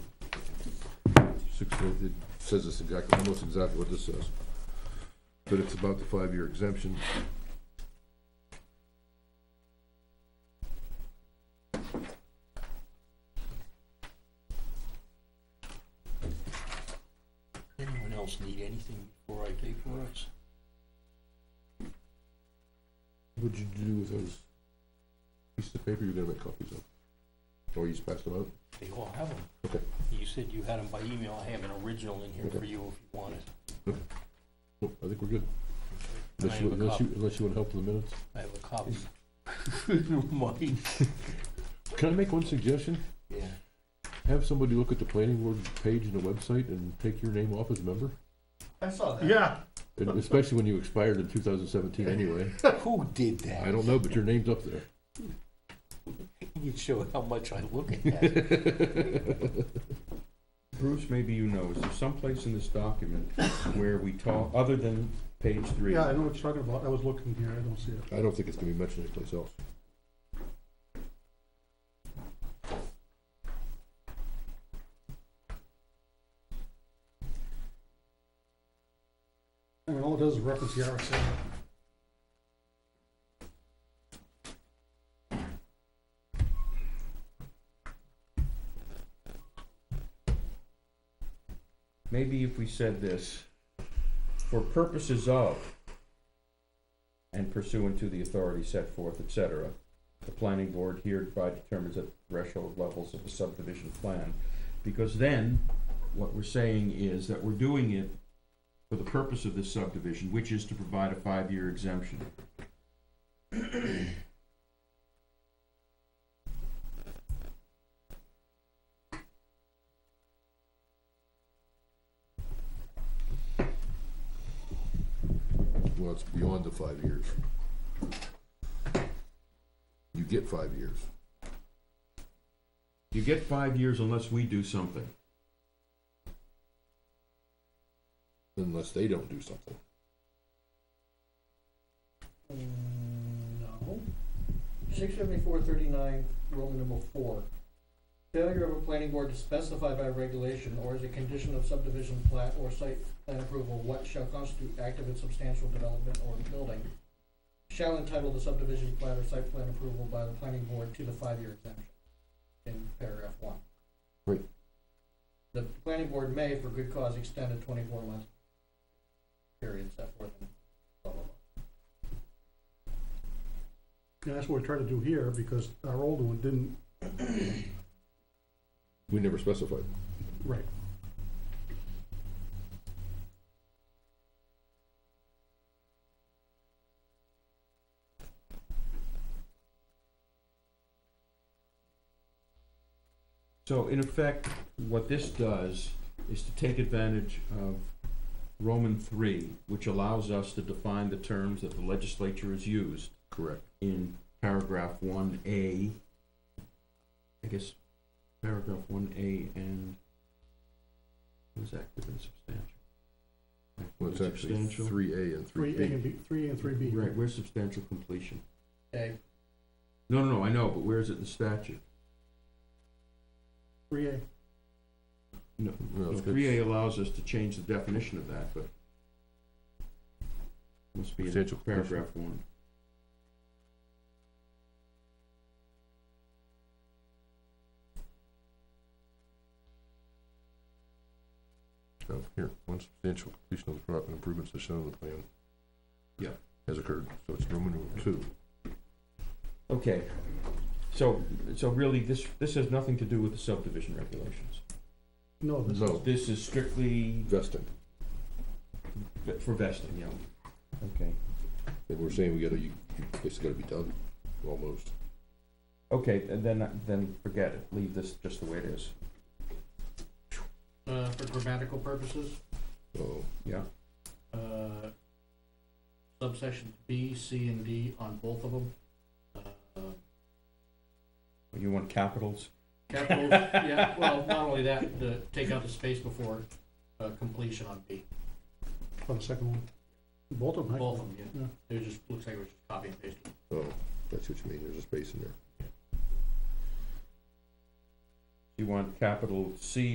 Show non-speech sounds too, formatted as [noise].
It it says this exactly, almost exactly what this says. But it's about the five-year exemption. Anyone else need anything before I vaporize? What'd you do with those pieces of paper you're gonna make copies of? Or you just passed them out? They all have them. Okay. You said you had them by email. I have an original in here for you if you want it. Nope, I think we're good. And I Unless you, have a unless you, copy. unless you wanna help with the minutes. I have a copy. [laughs] [laughs] Mine. Can I make one suggestion? Yeah. Have somebody look at the planning board page in the website and take your name off as a member? I saw that. Yeah, And Especially when you expired in two thousand seventeen anyway. Who did I that? don't know, but your name's up there. You'd show how much I look at that. Bruce, maybe you know, is there someplace in this document where we talk, other than page three? yeah, I know what you're talking about. I was looking here, I don't see it. I don't think it's gonna be mentioned anyplace else. I mean, all it does is reference the RSA. Maybe if we said this, for purposes of and pursuant to the authority set forth, et cetera, the planning board hereby determines the threshold levels of the subdivision plan. Because then, what we're saying is that we're doing it for the purpose of this subdivision, which is to provide a five-year exemption. Well, it's beyond the five years. You get five years. You get five years unless we do something. unless they don't do something. No. Six seventy-four thirty-nine, Roman number four. Failure of a planning board to specify by regulation or as a condition of subdivision plat or site plan approval what shall constitute active and substantial development or building shall entitle the subdivision plat or site plan approval by the planning board to the five-year exemption in paragraph one. Right. The planning board may, for good cause, extend a twenty-four month period set forth in blah, blah, blah. Yeah, that's what we're trying to do here, because our old one didn't, We never specified. right. So in effect, what this does is to take advantage of Roman three, which allows us to define the terms that the legislature has used Correct. in paragraph one A. I guess paragraph one A and was active and substantial. Well, it's actually Substantial. three A and three Three A and B. B, three A and three B. Right, where's substantial completion? Okay, No, no, no, I know, but where is it in the statute? Three A. No, No, it's good. three A allows us to change the definition of that, but must be in Substantial completion. paragraph one. Oh, here, once substantial completion of the property improvements as shown in the plan. Yeah. Has occurred, so it's Roman numeral two. Okay, so, so really, this, this has nothing to do with the subdivision regulations. No, this, No, This is strictly vesting. v- for vesting, yeah. Okay, And we're saying we gotta, you, you- it's gotta be done, almost. okay, and then, then forget it, leave this just the way it is, uh, for grammatical purposes, Oh, yeah? uh, subsection B, C, and D on both of them. Uh, You want capitals? Capitals, [laughs] yeah, well, not only that, the, take out the space before, uh, completion on B, on the second one. Both of them. both actually. of them, yeah. It was just, looks like it was just copy and paste. oh, that's what you mean, there's a space in there. You want capital C